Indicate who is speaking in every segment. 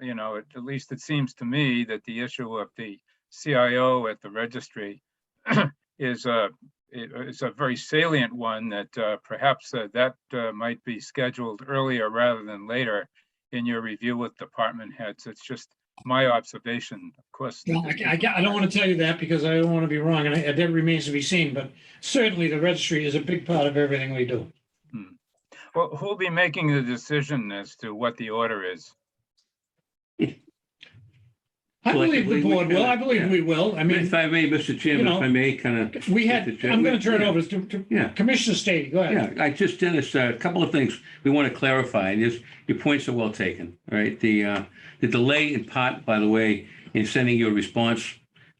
Speaker 1: you know, at at least it seems to me that the issue of the CIO at the registry is a, it- is a very salient one that uh, perhaps uh, that uh, might be scheduled earlier rather than later in your review with department heads. It's just my observation, of course.
Speaker 2: Well, I, I I don't want to tell you that because I don't want to be wrong and I- that remains to be seen, but certainly the registry is a big part of everything we do.
Speaker 1: Well, who'll be making the decision as to what the order is?
Speaker 2: I believe
Speaker 3: Collectively,
Speaker 2: the
Speaker 3: we
Speaker 2: board will.
Speaker 3: can,
Speaker 2: I believe
Speaker 3: yeah.
Speaker 2: we will. I mean,
Speaker 3: If I may, Mr. Chairman,
Speaker 2: you know,
Speaker 3: if I may, kind of,
Speaker 2: we had,
Speaker 3: Mr. Chair,
Speaker 2: I'm going to turn it
Speaker 3: yeah.
Speaker 2: over to to
Speaker 3: yeah,
Speaker 2: Commissioner Stady. Go ahead.
Speaker 3: yeah. I just, Dennis, uh, a couple of things we want to clarify. And Yes, your points are well taken, all right? The, uh, the delay in part, by the way, in sending your response,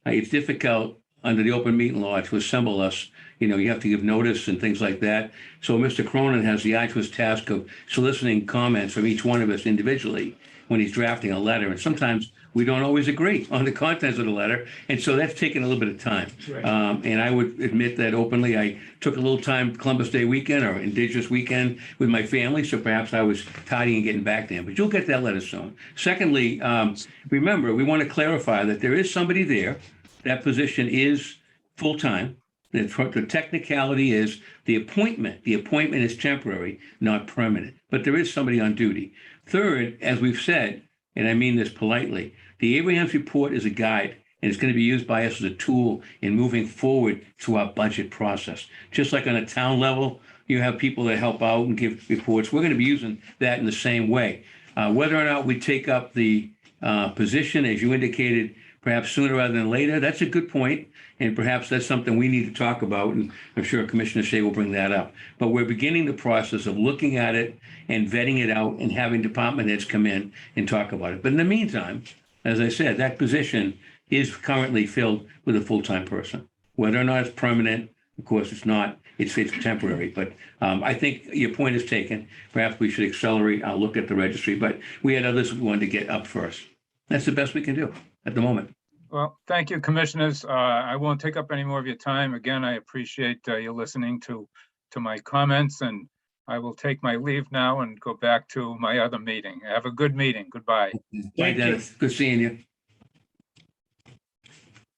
Speaker 3: uh, it's difficult under the open meeting law to assemble us. You know, you have to give notice and things like that. So Mr. Cronin has the arduous task of soliciting comments from each one of us individually when he's drafting a letter. And sometimes we don't always agree on the contents of the letter. And so that's taken a little bit of time.
Speaker 2: Right.
Speaker 3: Um, and I would admit that openly. I took a little time Columbus Day weekend or Indigenous weekend with my family, so perhaps I was tidying and getting back to him. But you'll get that letter soon. Secondly, um, remember, we want to clarify that there is somebody there. That position is full-time. The the technicality is the appointment, the appointment is temporary, not permanent, but there is somebody on duty. Third, as we've said, and I mean this politely, the Abraham's report is a guide and it's going to be used by us as a tool in moving forward to our budget process. Just like on a town level, you have people that help out and give reports. We're going to be using that in the same way. Uh, whether or not we take up the uh, position, as you indicated, perhaps sooner rather than later, that's a good point, And perhaps that's something we need to talk about. And I'm sure Commissioner Shea will bring that up. But we're beginning the process of looking at it and vetting it out and having department heads come in and talk about it. But in the meantime, as I said, that position is currently filled with a full-time person. Whether or not it's permanent, of course, it's not, it's, it's temporary. But um, I think your point is taken. Perhaps we should accelerate our look at the registry, but we had others we wanted to get up first. That's the best we can do at the moment.
Speaker 1: Well, thank you, commissioners. Uh, I won't take up any more of your time. Again, I appreciate uh, you listening to, to my comments and I will take my leave now and go back to my other meeting. Have a good meeting. Goodbye.
Speaker 3: Bye,
Speaker 2: Thank you.
Speaker 3: Dennis. Good seeing you.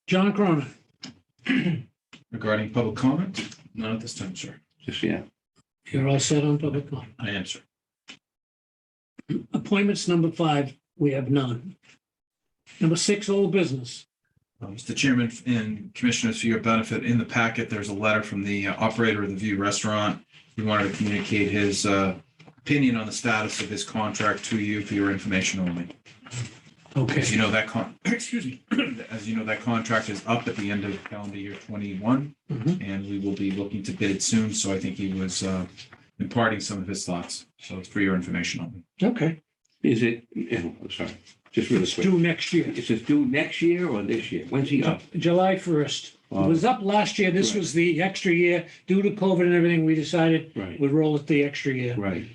Speaker 2: John Cronin.
Speaker 4: Regarding public comment? Not at this time, sir.
Speaker 3: Just, yeah.
Speaker 2: You're all set on public comment.
Speaker 4: I am, sir.
Speaker 2: Appointments number five, we have none. Number six, old business.
Speaker 4: Uh, Mr. Chairman and Commissioners, for your benefit, in the packet, there's a letter from the uh, operator of the View Restaurant. He wanted to communicate his uh, opinion on the status of his contract to you for your information only. As
Speaker 2: Okay,
Speaker 4: you know, that con, excuse me, as you know, that contract is up at the end of calendar year twenty-one,
Speaker 2: Mhm.
Speaker 4: and we will be looking to bid soon, so I think he was uh, imparting some of his thoughts. So it's for your information only.
Speaker 2: okay.
Speaker 3: Is it, yeah, I'm sorry, just really
Speaker 2: It's
Speaker 3: quick.
Speaker 2: due next year,
Speaker 3: Is this due next year or this year? When's he up?
Speaker 2: July 1st. It was up last year. This
Speaker 3: Right.
Speaker 2: was the extra year due to COVID and everything. We decided
Speaker 3: Right,
Speaker 2: we'd roll it the extra year.
Speaker 3: right.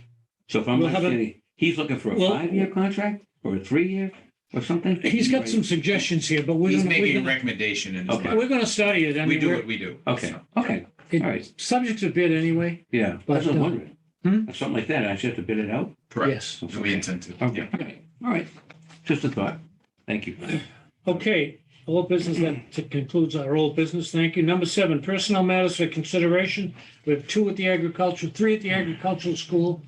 Speaker 3: So if I'm
Speaker 2: We'll have a-
Speaker 3: understanding, he's looking for a
Speaker 2: Well-
Speaker 3: five-year contract or a three-year or something?
Speaker 2: He's got some suggestions here, but we're
Speaker 4: He's
Speaker 2: gonna- we're
Speaker 4: making a
Speaker 2: gonna,
Speaker 4: recommendation in his
Speaker 3: Okay.
Speaker 4: letter.
Speaker 2: we're gonna study it. I
Speaker 4: We
Speaker 2: mean,
Speaker 4: do
Speaker 2: we're-
Speaker 4: what we do.
Speaker 3: Okay,
Speaker 4: So,
Speaker 3: okay, all
Speaker 2: it,
Speaker 3: right.
Speaker 2: subject to bid anyway.
Speaker 3: Yeah,
Speaker 2: But,
Speaker 3: that's what
Speaker 2: uh,
Speaker 3: I'm wondering.
Speaker 2: hmm?
Speaker 3: Something like that, I just have to bid it out?
Speaker 4: Correct.
Speaker 2: Yes.
Speaker 4: And we intend to. Yeah.
Speaker 3: Okay, okay. all right. Just a thought. Thank you.
Speaker 2: Okay, old business, that concludes our old business. Thank you. Number seven, personnel matters for consideration. We have two at the agricultural, three at the agricultural school,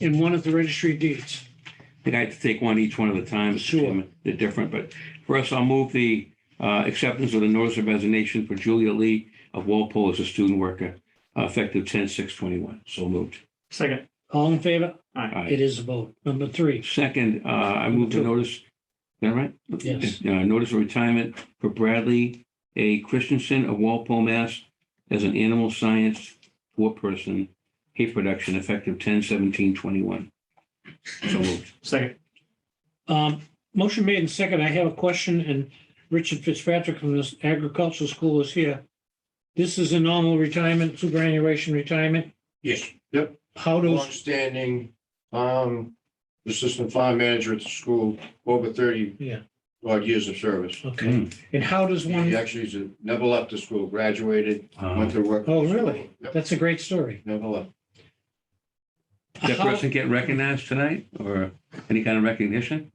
Speaker 2: and one at the registry of deeds.
Speaker 3: I think I had to take one each one at a time. Mr.
Speaker 2: Sure.
Speaker 3: Chairman. They're different, but first I'll move the uh, acceptance of the notice of resignation for Julia Lee of Walpole as a student worker, uh, effective 10/6/21. So moved.
Speaker 5: Second,
Speaker 2: All in favor?
Speaker 3: Aye.
Speaker 2: It is a vote. Number three,
Speaker 3: Second, uh, I move to notice, is that right?
Speaker 2: Yes.
Speaker 3: Uh, Notice of retirement for Bradley A. Christensen of Walpole, Mass. as an animal science four-person hay production effective 10/17/21. So moved.
Speaker 5: second,
Speaker 2: um, motion made and second. I have a question, and Richard Fitzpatrick from this agricultural school is here. This is a normal retirement, superannuation retirement.
Speaker 6: Yes, yep,
Speaker 2: How does,
Speaker 6: longstanding, um, assistant farm manager at the school, over thirty
Speaker 2: yeah,
Speaker 6: odd years of service.
Speaker 2: okay. And how does
Speaker 6: He
Speaker 2: one,
Speaker 6: actually is a- never left the school, graduated,
Speaker 3: Uh,
Speaker 6: went to work.
Speaker 2: Oh, really?
Speaker 6: Yep,
Speaker 2: that's a great story.
Speaker 6: Never left.
Speaker 3: Did that
Speaker 2: How-
Speaker 3: person get recognized tonight or any kind of recognition?